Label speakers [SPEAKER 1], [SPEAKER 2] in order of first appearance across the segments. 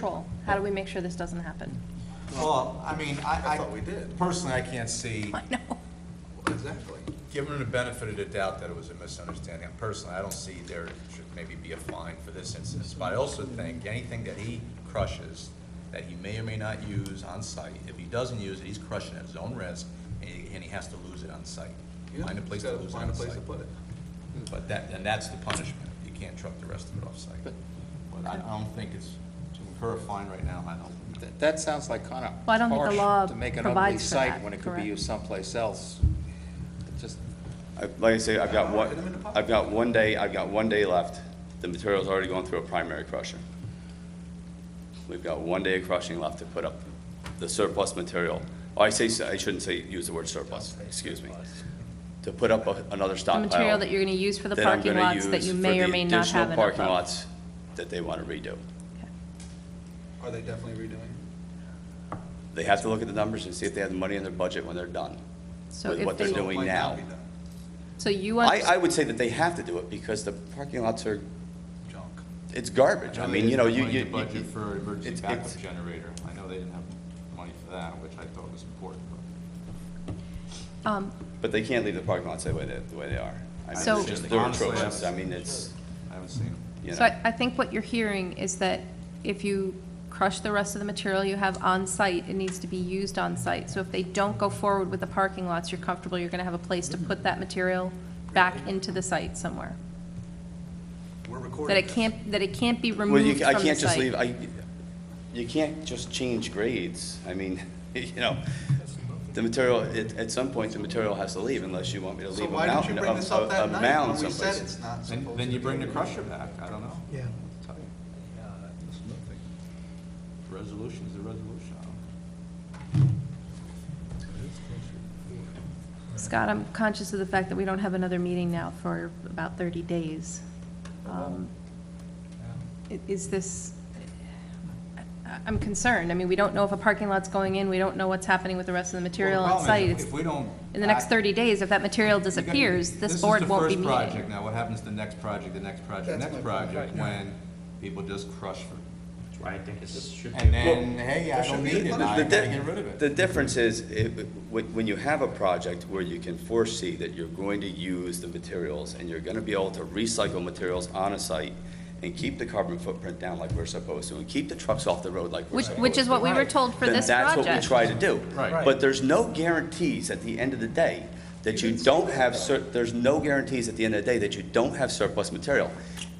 [SPEAKER 1] control? How do we make sure this doesn't happen?
[SPEAKER 2] Well, I mean, I,
[SPEAKER 3] I thought we
[SPEAKER 2] I,
[SPEAKER 3] did.
[SPEAKER 2] personally, I can't see,
[SPEAKER 1] I know.
[SPEAKER 4] Uh,
[SPEAKER 3] Exactly.
[SPEAKER 2] given the benefit of the doubt that it was a misunderstanding, personally, I don't see there should maybe be a fine for this instance. But I also think anything that he crushes, that he may or may not use on site, if he doesn't use it, he's crushing at his own risk, and he, and he has to lose it on site.
[SPEAKER 3] Yeah,
[SPEAKER 2] Find a place
[SPEAKER 3] he's
[SPEAKER 2] to
[SPEAKER 3] gotta
[SPEAKER 2] lose it
[SPEAKER 3] Find
[SPEAKER 2] on
[SPEAKER 3] a place
[SPEAKER 2] site.
[SPEAKER 3] to put it.
[SPEAKER 2] But that, and that's the punishment, you can't truck the rest of it off site. But
[SPEAKER 5] But-
[SPEAKER 2] I, I don't think it's, to incur a fine right now, I don't.
[SPEAKER 5] That- That sounds like kind of
[SPEAKER 1] Well, I don't think the law
[SPEAKER 5] harsh to make an ugly
[SPEAKER 1] provides for
[SPEAKER 5] site
[SPEAKER 1] that,
[SPEAKER 5] when it could be
[SPEAKER 1] correct?
[SPEAKER 5] used someplace else. It just,
[SPEAKER 4] I- Like I say, I've got
[SPEAKER 3] Hit 'em in the
[SPEAKER 4] one,
[SPEAKER 3] pocket.
[SPEAKER 4] I've got one day, I've got one day left. The material's already going through a primary crusher. We've got one day of crushing left to put up the surplus material. Oh, I say, s- I shouldn't say, use the word surplus, excuse me. To put up a- another
[SPEAKER 1] The
[SPEAKER 4] stockpile.
[SPEAKER 1] material that you're going to use for the
[SPEAKER 4] that I'm
[SPEAKER 1] parking
[SPEAKER 4] gonna
[SPEAKER 1] lots that
[SPEAKER 4] use
[SPEAKER 1] you
[SPEAKER 4] for
[SPEAKER 1] may
[SPEAKER 4] the
[SPEAKER 1] or may not
[SPEAKER 4] additional
[SPEAKER 1] have enough
[SPEAKER 4] Parking
[SPEAKER 1] of.
[SPEAKER 4] lots that they want to redo.
[SPEAKER 3] Are they definitely redoing it?
[SPEAKER 4] They have to look at the numbers and see if they have the money in their budget when they're done.
[SPEAKER 1] So
[SPEAKER 4] with
[SPEAKER 1] if
[SPEAKER 4] what they're
[SPEAKER 1] they-
[SPEAKER 3] So it
[SPEAKER 4] doing
[SPEAKER 3] might not
[SPEAKER 4] now.
[SPEAKER 3] be done.
[SPEAKER 1] So you
[SPEAKER 4] I,
[SPEAKER 1] want,
[SPEAKER 4] I would say that they have to do it because the parking lots are,
[SPEAKER 3] Junk.
[SPEAKER 4] it's garbage. I mean, you know, you, you.
[SPEAKER 2] Budget for emergency
[SPEAKER 4] it's-
[SPEAKER 2] backup
[SPEAKER 4] it's-
[SPEAKER 2] generator. I know they didn't have money for that, which I thought was important, but.
[SPEAKER 1] um,
[SPEAKER 4] But they can't leave the parking lots the way they, the way they are. I mean,
[SPEAKER 1] So-
[SPEAKER 4] it's just- They're
[SPEAKER 2] Honestly, I-
[SPEAKER 4] atrocious, I mean, it's,
[SPEAKER 2] I haven't seen them.
[SPEAKER 4] you
[SPEAKER 1] so
[SPEAKER 4] know,
[SPEAKER 1] I, I think what you're hearing is that if you crush the rest of the material you have on site, it needs to be used on site. So if they don't go forward with the parking lots, you're comfortable, you're going to have a place to put that material back into the site somewhere.
[SPEAKER 3] We're recording
[SPEAKER 1] That it
[SPEAKER 3] this.
[SPEAKER 1] can't, that it can't be
[SPEAKER 4] well,
[SPEAKER 1] removed
[SPEAKER 4] you,
[SPEAKER 1] from
[SPEAKER 4] I
[SPEAKER 1] the
[SPEAKER 4] can't just
[SPEAKER 1] site.
[SPEAKER 4] leave, I, you can't just change grades, I mean, you know, the material, at, at some point, the material has to leave unless you want me to
[SPEAKER 3] So
[SPEAKER 4] leave a
[SPEAKER 3] why didn't you
[SPEAKER 4] mountain, a,
[SPEAKER 3] bring this up
[SPEAKER 4] a a
[SPEAKER 3] that night
[SPEAKER 4] mound
[SPEAKER 3] when we said
[SPEAKER 4] someplace.
[SPEAKER 3] it's not supposed to?
[SPEAKER 2] Then, then you
[SPEAKER 3] be
[SPEAKER 2] bring the
[SPEAKER 3] redoing?
[SPEAKER 2] crusher back, I don't know. Yeah. Resolution is a resolution. I don't-
[SPEAKER 1] Scott, I'm conscious of the fact that we don't have another meeting now for about 30 days. Um, i- Is this, I- I'm concerned. I mean, we don't know if a parking lot's going in, we don't know what's happening with the rest of the material
[SPEAKER 2] Well,
[SPEAKER 1] on
[SPEAKER 2] the problem
[SPEAKER 1] site.
[SPEAKER 2] is,
[SPEAKER 1] It's-
[SPEAKER 2] If we don't.
[SPEAKER 1] In the next
[SPEAKER 2] act-
[SPEAKER 1] 30 days, if that material disappears,
[SPEAKER 2] This
[SPEAKER 1] this
[SPEAKER 2] is
[SPEAKER 1] board
[SPEAKER 2] the
[SPEAKER 1] won't be
[SPEAKER 2] first
[SPEAKER 1] meeting.
[SPEAKER 2] project. Now, what happens to the next project, the next project, the next project, when people just crush for,
[SPEAKER 6] That's why I think this should be.
[SPEAKER 2] and then, hey, I don't need it, I gotta
[SPEAKER 4] The di-
[SPEAKER 2] get rid of it.
[SPEAKER 4] The difference is, it, when, when you have a project where you can foresee that you're going to use the materials and you're gonna be able to recycle materials on a site and keep the carbon footprint down like we're supposed to, and keep the trucks off the road like we're
[SPEAKER 1] Which,
[SPEAKER 4] supposed to.
[SPEAKER 1] which is what we were told for
[SPEAKER 4] then
[SPEAKER 1] this
[SPEAKER 4] that's what we
[SPEAKER 1] project.
[SPEAKER 4] try to do.
[SPEAKER 2] Right.
[SPEAKER 4] But there's no guarantees at the end of the day that you don't have, sur- there's no guarantees at the end of the day that you don't have surplus material.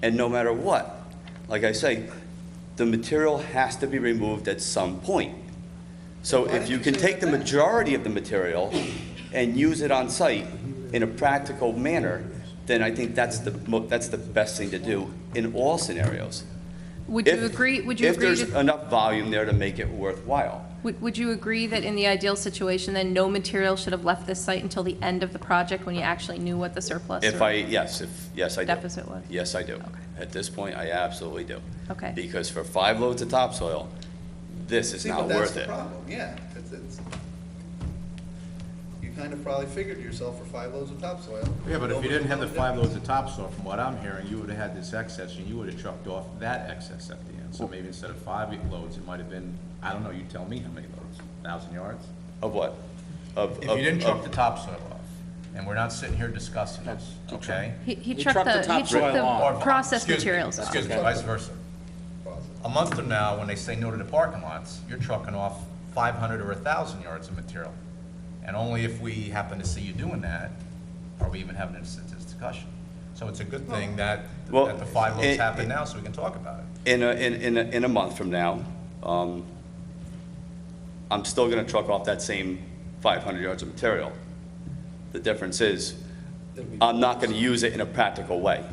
[SPEAKER 4] And no matter what, like I say, the material has to be removed at some point. So if you can take the majority of the material and use it on site in a practical manner, then I think that's the, mo- that's the best thing to do in all scenarios.
[SPEAKER 1] Would you
[SPEAKER 4] If-
[SPEAKER 1] agree, would you
[SPEAKER 4] If
[SPEAKER 1] agree,
[SPEAKER 4] there's
[SPEAKER 1] to-
[SPEAKER 4] enough volume there to make it worthwhile.
[SPEAKER 1] would would you agree that in the ideal situation, then no material should have left this site until the end of the project when you actually knew what the surplus?
[SPEAKER 4] If
[SPEAKER 1] or-
[SPEAKER 4] I, yes, if, yes, I do.
[SPEAKER 1] Deficit was?
[SPEAKER 4] Yes, I do. At this point, I absolutely do.
[SPEAKER 1] Okay.
[SPEAKER 4] Because for five loads of topsoil, this is
[SPEAKER 3] See, but
[SPEAKER 4] not
[SPEAKER 3] that's
[SPEAKER 4] worth
[SPEAKER 3] the
[SPEAKER 4] it.
[SPEAKER 3] problem, yeah. It's- it's- You kind of probably figured yourself for five loads of topsoil.
[SPEAKER 7] Yeah, but if you
[SPEAKER 3] Loads
[SPEAKER 7] didn't have the
[SPEAKER 3] of
[SPEAKER 7] five loads of topsoil, from what I'm hearing, you would've had this excess, and you would've trucked off that excess at the end. So maybe instead of five loads, it might've been, I don't know, you tell me how many loads, thousand yards?
[SPEAKER 4] Of what? Of,
[SPEAKER 7] If
[SPEAKER 4] of-
[SPEAKER 7] you didn't
[SPEAKER 4] of-
[SPEAKER 7] truck the topsoil off, and we're not sitting here discussing this, okay?
[SPEAKER 1] He he
[SPEAKER 5] He
[SPEAKER 1] trucked
[SPEAKER 5] trucked the
[SPEAKER 1] the, he
[SPEAKER 5] topsoil
[SPEAKER 1] trucked the
[SPEAKER 7] Or-
[SPEAKER 1] processed
[SPEAKER 7] excuse me,
[SPEAKER 1] materials.
[SPEAKER 7] Excuse me, vice versa.
[SPEAKER 3] Positive.
[SPEAKER 7] A month from now, when they say no to the parking lots, you're trucking off five hundred or thousand yards of material. And only if we happen to see you doing that, are we even having this this discussion. So it's a good thing that,
[SPEAKER 4] Well,
[SPEAKER 7] that the five loads
[SPEAKER 4] it-
[SPEAKER 7] happen now, so we can talk about it.
[SPEAKER 4] in a, in, in a, in a month from now, um, I'm still gonna truck off that same five hundred yards of material. The difference is, I'm not gonna use it in a practical way.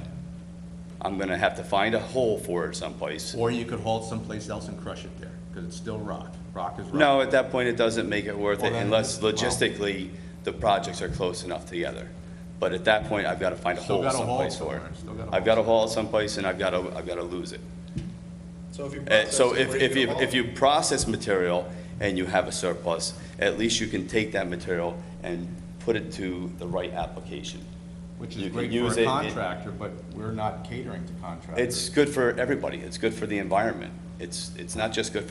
[SPEAKER 4] I'm gonna have to find a hole for it someplace.
[SPEAKER 7] Or you could haul it someplace else and crush it there, because it's still rock. Rock is rock.
[SPEAKER 4] No, at that point, it doesn't make it worth
[SPEAKER 7] Well,
[SPEAKER 4] it
[SPEAKER 7] then-
[SPEAKER 4] unless
[SPEAKER 7] well-
[SPEAKER 4] logistically, the projects are close enough together. But at that point, I've got to find a
[SPEAKER 7] Still
[SPEAKER 4] hole
[SPEAKER 7] gotta haul
[SPEAKER 4] someplace for it.
[SPEAKER 7] somewhere, still gotta
[SPEAKER 4] I've got to haul it someplace and I've got to, I've got to lose it.
[SPEAKER 3] So if you.
[SPEAKER 4] Uh,
[SPEAKER 3] process
[SPEAKER 4] So
[SPEAKER 3] it,
[SPEAKER 4] if,
[SPEAKER 3] where are
[SPEAKER 4] if you,
[SPEAKER 3] gonna
[SPEAKER 4] if
[SPEAKER 3] haul it?
[SPEAKER 4] you process material and you have a surplus, at least you can take that material and put it to the right application.
[SPEAKER 7] Which
[SPEAKER 4] You
[SPEAKER 7] is
[SPEAKER 4] can
[SPEAKER 7] great
[SPEAKER 4] use
[SPEAKER 7] for
[SPEAKER 4] it-
[SPEAKER 7] a
[SPEAKER 4] it-
[SPEAKER 7] contractor, but we're not catering to contractors.
[SPEAKER 4] It's good for everybody. It's good for the environment. It's, it's not just good